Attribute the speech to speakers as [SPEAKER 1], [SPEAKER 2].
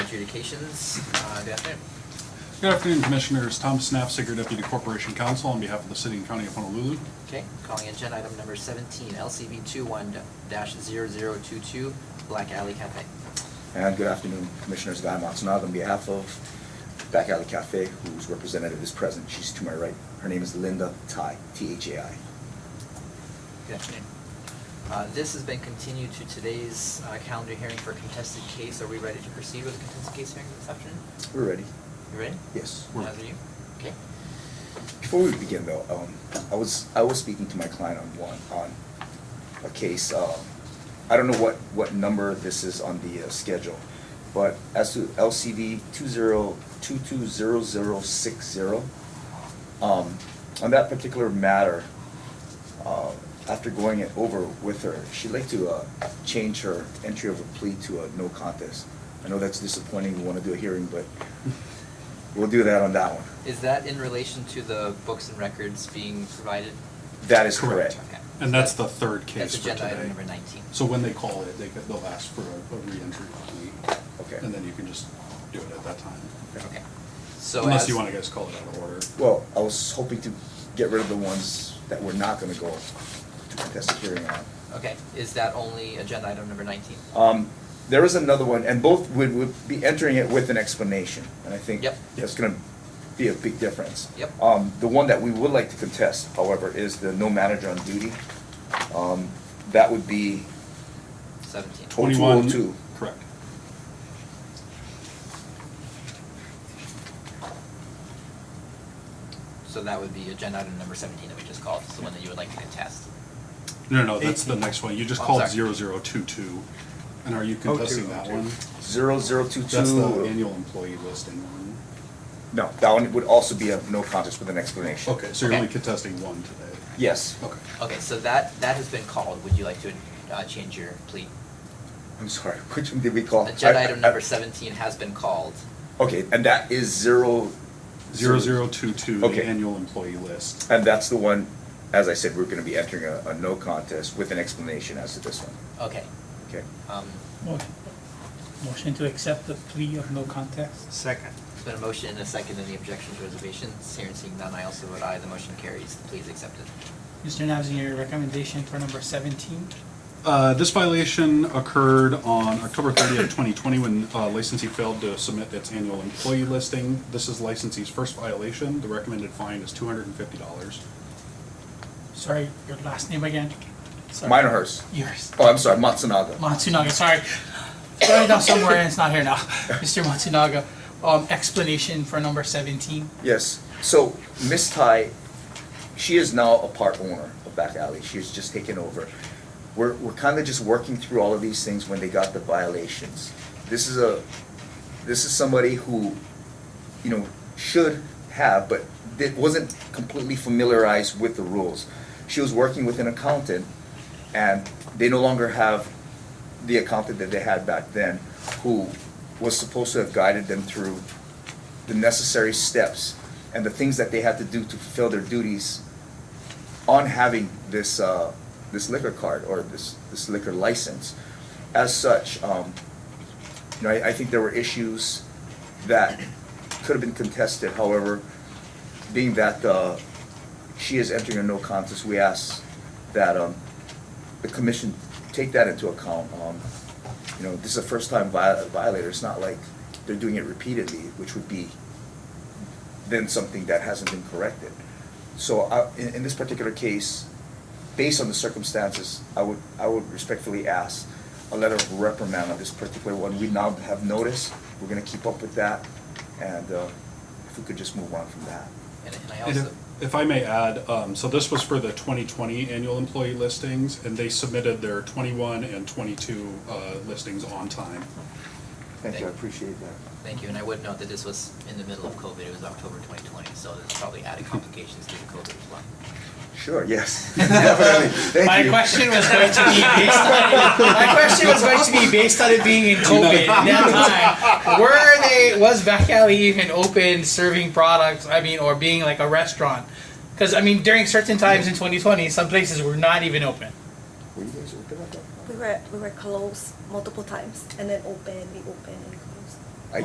[SPEAKER 1] Adjudications, uh, good afternoon.
[SPEAKER 2] Good afternoon, Commissioners. Tom Snapsinger, Deputy Corporation Counsel, on behalf of the City and County of Honolulu.
[SPEAKER 1] Okay, calling agenda item number seventeen, LCB two one dash zero zero two two, Black Alley Cafe.
[SPEAKER 3] And good afternoon, Commissioners Guy Matsunaga on behalf of Back Alley Cafe, whose representative is present. She's to my right. Her name is Linda Tai, T-H-A-I.
[SPEAKER 1] Good afternoon. Uh, this has been continued to today's, uh, calendar hearing for contested case. Are we ready to proceed with the contested case hearing this afternoon?
[SPEAKER 3] We're ready?
[SPEAKER 1] You ready?
[SPEAKER 3] Yes.
[SPEAKER 2] We're-
[SPEAKER 1] Neither you? Okay.
[SPEAKER 3] Before we begin though, um, I was, I was speaking to my client on one, on a case, uh, I don't know what, what number this is on the uh, schedule, but as to LCD two zero, two two zero zero six zero, um, on that particular matter, uh, after going it over with her, she'd like to, uh, change her entry of a plea to a no contest. I know that's disappointing, we wanna do a hearing, but we'll do that on that one.
[SPEAKER 1] Is that in relation to the books and records being provided?
[SPEAKER 3] That is
[SPEAKER 2] Correct.
[SPEAKER 3] correct.
[SPEAKER 1] Okay.
[SPEAKER 2] And that's the third case
[SPEAKER 1] That's
[SPEAKER 2] for today.
[SPEAKER 1] agenda item number nineteen.
[SPEAKER 2] So when they call it, they, could- they'll ask for a a reentry plea.
[SPEAKER 3] Okay.
[SPEAKER 2] And then you can just do it at that time.
[SPEAKER 1] Okay. So
[SPEAKER 2] Unless
[SPEAKER 1] as-
[SPEAKER 2] you want to guys call it out of order.
[SPEAKER 3] Well, I was hoping to get rid of the ones that we're not gonna go to contested hearing on.
[SPEAKER 1] Okay, is that only agenda item number nineteen?
[SPEAKER 3] Um, there is another one, and both would, would be entering it with an explanation, and I think
[SPEAKER 1] Yep.
[SPEAKER 3] that's gonna be a big difference.
[SPEAKER 1] Yep.
[SPEAKER 3] Um, the one that we would like to contest, however, is the no manager on duty. Um, that would be,
[SPEAKER 1] Seventeen.
[SPEAKER 3] 2202.
[SPEAKER 2] Correct.
[SPEAKER 1] So that would be agenda item number seventeen that we just called, it's the one that you would like to contest.
[SPEAKER 2] No, no, that's the next one. You just
[SPEAKER 1] I'm
[SPEAKER 2] called
[SPEAKER 1] Oh, sorry.
[SPEAKER 2] 0022. And are you
[SPEAKER 4] Oh, two,
[SPEAKER 2] contesting that
[SPEAKER 4] oh, two.
[SPEAKER 2] one?
[SPEAKER 3] zero zero two two.
[SPEAKER 2] That's the annual employee listing one.
[SPEAKER 3] No, that one would also be a no contest with an explanation.
[SPEAKER 2] Okay, so you're
[SPEAKER 1] Okay.
[SPEAKER 2] only contesting one today?
[SPEAKER 3] Yes,
[SPEAKER 2] Okay.
[SPEAKER 1] Okay, so that, that has been called, would you like to, uh, change your plea?
[SPEAKER 3] I'm sorry, which one did we call?
[SPEAKER 1] Agenda
[SPEAKER 3] I- I-
[SPEAKER 1] item number seventeen has been called,
[SPEAKER 3] Okay, and that is zero.
[SPEAKER 2] 0022, the
[SPEAKER 3] Okay.
[SPEAKER 2] annual employee list.
[SPEAKER 3] And that's the one, as I said, we're gonna be entering a, a no contest with an explanation as to this one,
[SPEAKER 1] okay,
[SPEAKER 3] okay?
[SPEAKER 1] um,
[SPEAKER 5] Motion- Motion to accept the plea of no contest?
[SPEAKER 4] Second.
[SPEAKER 1] it's been a motion and a second, any objections, reservations, hearing seeing none, I also vote aye, the motion carries, please accept it.
[SPEAKER 5] Mr. Nabzin, your recommendation for number seventeen?
[SPEAKER 2] Uh, This violation occurred on October 30th, 2020, when uh, licensee failed to submit its annual employee listing. This is licensee's first violation. The recommended fine is $250.
[SPEAKER 5] Sorry, your last name again? Sorry.
[SPEAKER 3] Mine or hers?
[SPEAKER 5] Yours.
[SPEAKER 3] Oh, I'm sorry, Matsunaga.
[SPEAKER 5] Matsunaga, sorry. Wrote it down somewhere and it's not here now. Mr. Matsunaga, um, explanation for number seventeen?
[SPEAKER 3] Yes, so Miss Ty, she is now a part owner of Back Alley, she's just taken over. We're, we're kinda just working through all of these things when they got the violations. This is a, this is somebody who, you know, should have, but that wasn't completely familiarized with the rules. She was working with an accountant, and they no longer have the accountant that they had back then, who was supposed to have guided them through the necessary steps and the things that they had to do to fulfill their duties on having this, uh, this liquor card or this, this liquor license. As such, um, you know, I, I think there were issues that could have been contested, however, being that, uh, she is entering a no contest, we ask that, um, the commission take that into account. Um, you know, this is a first-time vi- violator, it's not like they're doing it repeatedly, which would be then something that hasn't been corrected. So I, in, in this particular case, based on the circumstances, I would, I would respectfully ask a letter of reprimand on this particular one. We now have notice, we're gonna keep up with that, and, uh, if we could just move on from that.
[SPEAKER 1] And, and I
[SPEAKER 2] And
[SPEAKER 1] also,
[SPEAKER 2] If if I may add, um, so this was for the 2020 annual employee listings, and they submitted their 21 and 22 uh, listings on time.
[SPEAKER 3] Thank you, I appreciate that.
[SPEAKER 1] thank you, and I would note that this was in the middle of COVID, it was October twenty twenty, so there's probably added complications due to COVID as well.
[SPEAKER 3] Sure, yes, definitely, thank you.
[SPEAKER 5] My question was going to be based on, my question was going to be based on it being in COVID at that time. Were they, was Back Alley even open serving products, I mean, or being like a restaurant? Because, I mean, during certain times in 2020, some places were not even open.
[SPEAKER 3] Were you guys open at that?
[SPEAKER 6] We were we were closed multiple times and then open, we open and